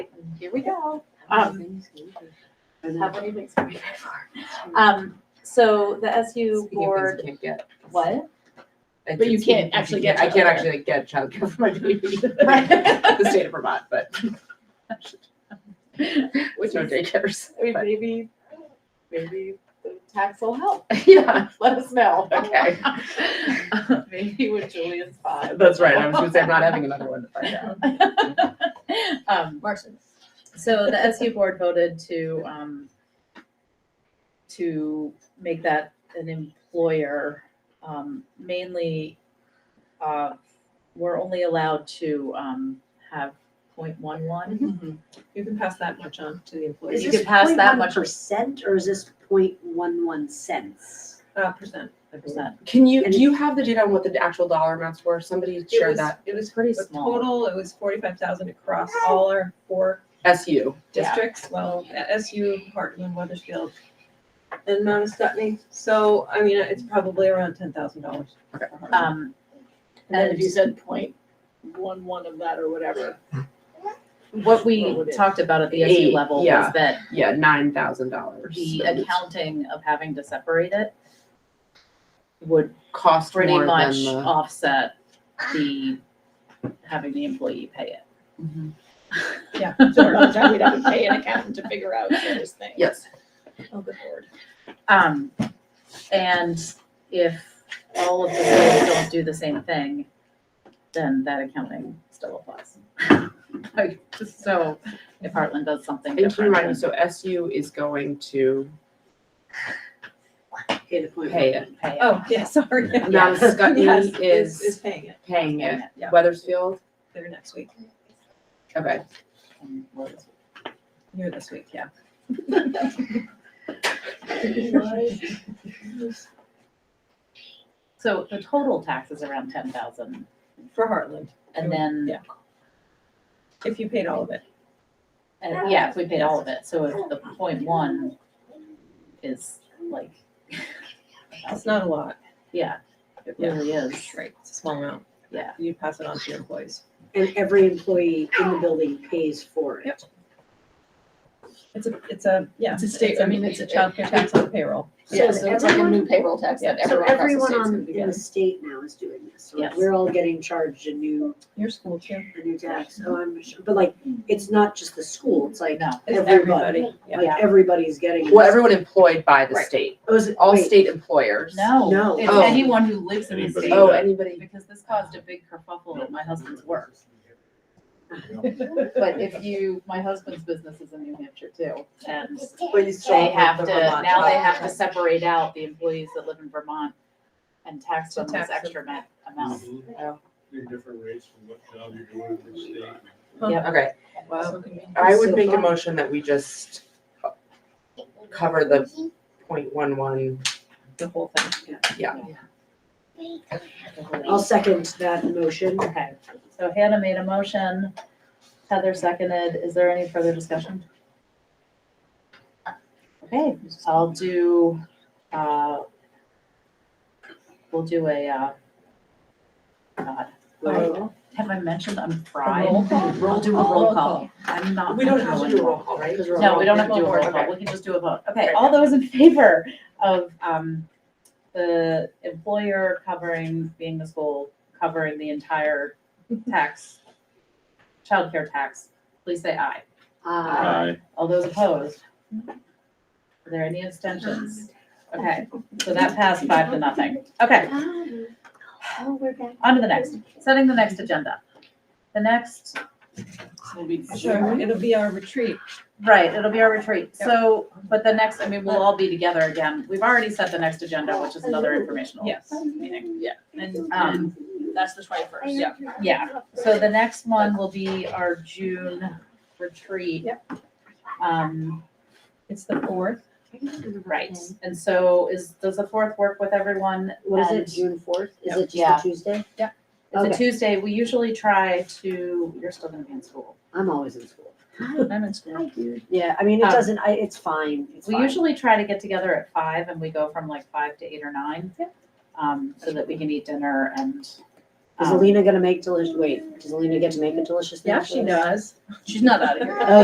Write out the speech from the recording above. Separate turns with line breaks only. Here we go.
Um,
Have any things to be paid for. Um, so the SU
Speaking of things
board,
you can't get.
what?
Like,
But you
speaking
can't
of things
actually
you
get
I can't
childcare.
actually like, get childcare for my baby.
Right.
The state of Vermont, but.
Which
no
is-
daycares.
I mean,
but-
maybe, maybe the tax will help.
Yeah,
Let us know.
okay.
Maybe when Julian's five.
That's right. I was gonna say, I'm not having another one to find out.
Um, Marson. So the SU board voted to, um, to make that an employer, um, mainly, uh, we're only allowed to, um, have point one one.
You can pass that much on to the
Is
employees,
You could pass that much-
Percent or is this point one one cents?
uh, percent. I believe.
percent.
Can you,
And-
do you have the data on what the actual dollar amounts were? Somebody
It
shared
was-
that.
It was
Pretty
the
small.
total, it was forty-five thousand across all our four
SU.
Yeah.
districts, well, SU, Hartland, Weathersfield, and Mount Scottney. So, I mean, it's probably around ten thousand dollars.
Um,
And then if you said point one one of that or whatever.
what
What
we
would it-
talked about at the SU
Eight,
level
yeah.
was that
Yeah, nine thousand dollars.
the accounting of having to separate it would
Cost
pretty
more than
much
the.
offset the, having the employee pay it.
Mhm.
Yeah.
So every time we'd have to pay an accountant to figure out this thing.
Yes.
Oh, good lord.
Um, and if all of the schools don't do the same thing, then that accounting still applies. Like, So if Heartland does something
And keep in
different.
mind, so SU is going to
Pay the point.
pay it.
then pay it.
Oh, yeah, sorry.
Mount
Yes,
Scottney
is, is
is
paying it
paying it.
Yeah.
Weathersfield,
there next week,
okay.
And was-
here this week, yeah.
So the total tax is around ten thousand
For Heartland,
and then,
Yeah. if you paid all of it.
and yeah, if we paid all of it, so if the point one is like,
It's not a lot.
yeah, it
Yeah.
really is.
Right. It's a small amount.
Yeah.
You pass it on to your employees.
And every employee in the building pays for it.
Yep. It's a, it's a, yeah.
It's a state- I mean,
It's a
it's-
childcare tax on payroll.
Yeah, so it's like a new payroll tax that
So
everyone across the
everyone
state's
on,
gonna be
in the
getting.
state now is doing this. So
Yes.
We're all getting charged a new,
Your school too.
a new tax. So I'm, sure- but like, it's not just the school, it's like
No.
It's
everybody.
everybody, yeah.
Like everybody's getting.
Well,
this.
everyone employed by the
Right.
state,
Oh, is it-
all
wait,
state employers.
No,
No.
it's
Oh.
anyone who lives in the
Anybody
state.
Oh,
that-
anybody,
Because this caused a big kerfuffle at my husband's work.
But
But if you, my husband's business is in New Hampshire too, and
But you
they have
the
to,
Vermont
now they
tax.
have to separate out the employees that live in Vermont and tax
To
them this
tax them.
extra ma- amount.
different rates from what job you're doing in the state.
okay,
Wow.
I would make a motion that we just cover the point one one.
The whole thing.
Oh,
I'll second that motion.
Okay, so Hannah made a motion, Heather seconded, is there any further discussion? Okay, I'll do, uh, we'll do a, uh, God,
Right.
have I mentioned I'm fried?
Roll call?
I'll do a roll call. I'm not.
We don't have to
going
do a roll call, right?
Because we're
No,
all-
we don't have to do a roll
Okay.
call, we can just do a vote. Okay, all those in favor of, um, the employer covering, being the school, covering the entire tax, childcare tax, please say aye.
Uh,
Aye.
All those opposed? Are there any abstentions? Okay, so that passed five to nothing. Okay,
Oh, we're back.
on to the next, setting the next agenda. The next will be
Sure, it'll be our retreat.
Right, it'll be our retreat. So, but the next, I mean, we'll all be together again. We've already set the next agenda, which is another informational.
Yes.
Meeting, yeah. And, um,
That's the twenty-first, yeah.
yeah. so the next one will be our June retreat. Yep. Um,
It's the fourth.
right. And so is, does the fourth work with everyone?
What is it,
And-
June fourth? Is
Yep.
it
Yeah.
just a Tuesday?
It's
Okay.
a Tuesday. We usually try to, you're still gonna be in school.
I'm always in school.
I'm in school.
Hi, dude.
Yeah, I mean, it
Um,
doesn't, I, it's fine, it's
We
fine.
usually try to get together at five and we go from like five to eight or nine. Um, so that we can eat dinner and.
Is
um,
Alina gonna make delicious, wait, does Alina get to make a delicious thing?
Yeah, she
for us?
does.
She's not out of here.
Oh,